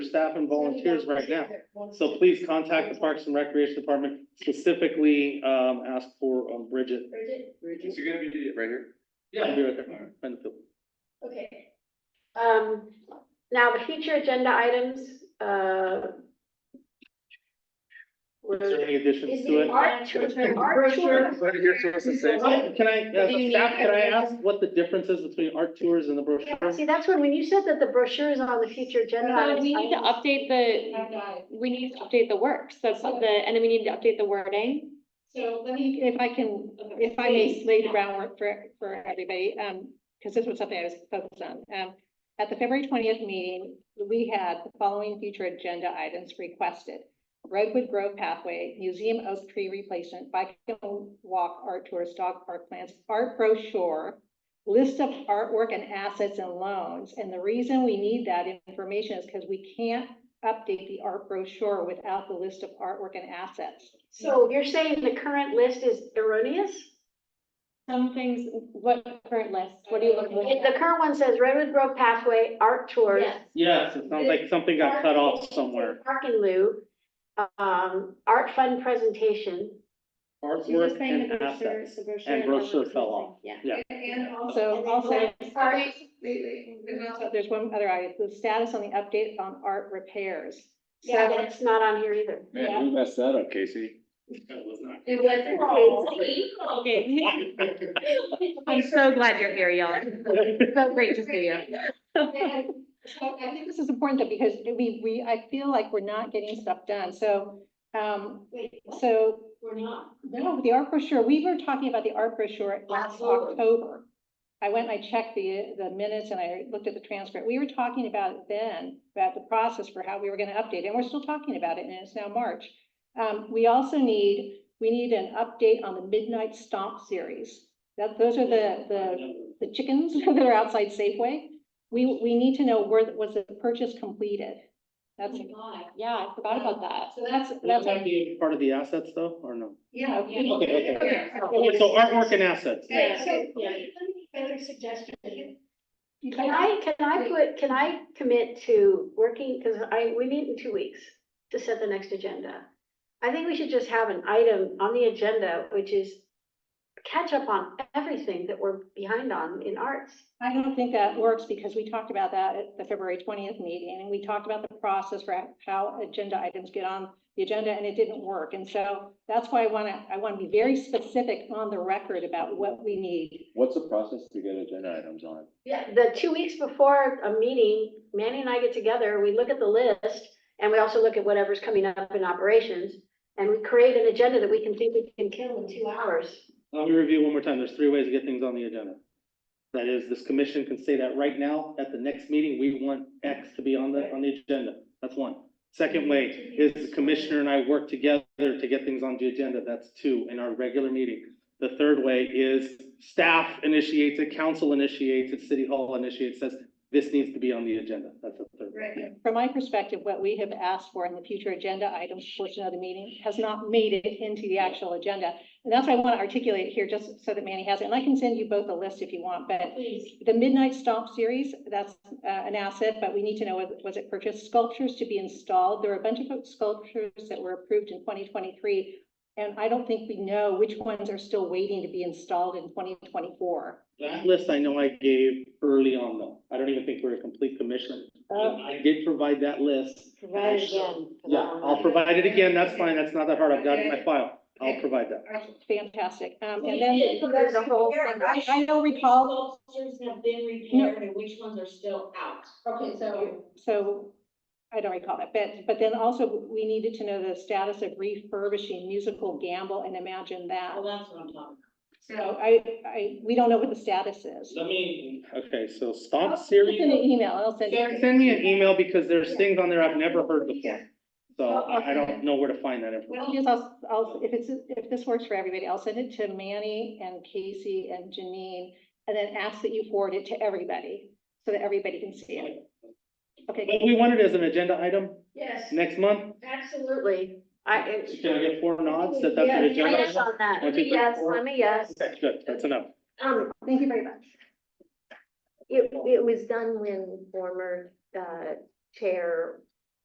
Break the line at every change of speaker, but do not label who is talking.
staff and volunteers right now. So please contact the Parks and Recreation Department, specifically, um, ask for um, Bridget.
Bridget,
Is it gonna be right here?
I'll be right there. Benfield.
okay. Um, now the future agenda items, uh.
Is there
were-
any additions
Is
to
the
it?
art tour, art tour,
Right here, so it's the same.
Well, Can I, as
Do you
a
need-
staff, can I ask what the difference is between art tours and the brochure?
yeah, see, that's when, when you said that the brochure is on the future agenda.
So
items,
we
I
need to
was-
update the, we need to update the works, that's the, and then we need to update the wording.
So let me.
If I can, if I may lay the groundwork for, for everybody, um, because this was something I was focused on. Um, at the February twentieth meeting, we had the following future agenda items requested. Redwood Grove pathway, museum oak tree replacement, bike and walk art tours, dog park plants, art brochure, list of artwork and assets and loans. And the reason we need that information is because we can't update the art brochure without the list of artwork and assets.
So you're saying the current list is erroneous?
Some things, what current list, what are you looking
If
at?
The current one says Redwood Grove Pathway Art Tours.
Yes.
Yes, it sounds like something got cut off somewhere.
Park and Lou, um, Art Fund Presentation.
Artwork and assets. and brochure fell off.
Yeah.
And
So also,
Sorry, wait, wait, there's
so
also-
there's one other item, the status on the update on art repairs.
Yeah,
So-
that's not on here either.
Man, who messed that up, Casey?
It was.
Okay.
I'm so glad you're here, y'all. So great to see you.
So I think this is important though, because we, we, I feel like we're not getting stuff done, so, um,
Wait, what?
so,
We're not.
no, the art brochure, we were talking about the art brochure last
Absolutely.
October. I went and I checked the, the minutes and I looked at the transcript, we were talking about it then, about the process for how we were gonna update, it, and we're still talking about it, and it's now March. Um, we also need, we need an update on the Midnight Stomp series, that, those are the, the the chickens that are outside Safeway. We, we need to know where, was the purchase completed? That's,
Oh my God.
yeah, I forgot about that. So that's,
Would
that's,
that be part of the assets though, or no?
Yeah.
Okay,
okay.
Okay,
Okay, so artwork and assets.
Yeah.
So-
Yeah. Better suggestion.
Can I, can I put, can I commit to working, because I, we meet in two weeks to set the next agenda. I think we should just have an item on the agenda, which is catch up on everything that we're behind on in arts.
I don't think that works because we talked about that at the February twentieth meeting and we talked about the process for how agenda items get on the agenda and it didn't work. And so that's why I wanna, I wanna be very specific on the record about what we need.
What's the process to get agenda items on?
Yeah, the two weeks before a meeting, Manny and I get together, we look at the list, and we also look at whatever's coming up in operations. And we create an agenda that we can think we can kill in two hours.
Let me review one more time. There's three ways to get things on the agenda. That is, this commission can say that right now, at the next meeting, we want X to be on the, on the agenda. That's one. Second way is the commissioner and I work together to get things on the agenda. That's two in our regular meeting. The third way is staff initiates it, council initiates it, city hall initiates, says this needs to be on the agenda. That's the third. way.
From my perspective, what we have asked for in the future agenda items portion of the meeting has not made it into the actual agenda. And that's why I want to articulate it here, just so that Manny has it. And I can send you both a list if you want, but
Please.
the Midnight Stomp series, that's uh, an asset, but we need to know, was- was it purchased? Sculptures to be installed. There were a bunch of sculptures that were approved in twenty twenty-three. And I don't think we know which ones are still waiting to be installed in twenty twenty-four.
That list I know I gave early on though. I don't even think we're a complete commission.
Oh,
I did provide that list.
Right again.
Yeah, I'll provide it again, that's fine, that's not that hard, I've got it in my file, I'll provide that.
Fantastic. Um,
We
and then.
did, but there's a whole thing.
I I don't recall
Sculptures have been repaired and which ones are still out. Okay, so.
So I don't recall that, but, but then also we needed to know the status of refurbishing musical gamble and imagine that.
Well, that's what I'm talking
So I, I, we don't know what the status is.
Let me. Okay, so
I'll
stomp
send you an
series,
email, I'll send
Yeah,
you.
send me an email because there's things on there I've never heard before. So I, I don't know where to find that information.
I'll just- I'll, I'll, if it's, if this works for everybody, I'll send it to Manny and Casey and Janine. And then ask that you forward it to everybody, so that everybody can see it. Okay,
But we want it as an agenda item
Yes,
next month,
Absolutely. I, it-
can I get four nods that that's
yeah,
an agenda?
yes
item?
on that.
One, two, three,
Yes,
four.
I'm a yes.
Okay, good, that's enough.
Um,
thank you very much.
It, it was done when former, uh, chair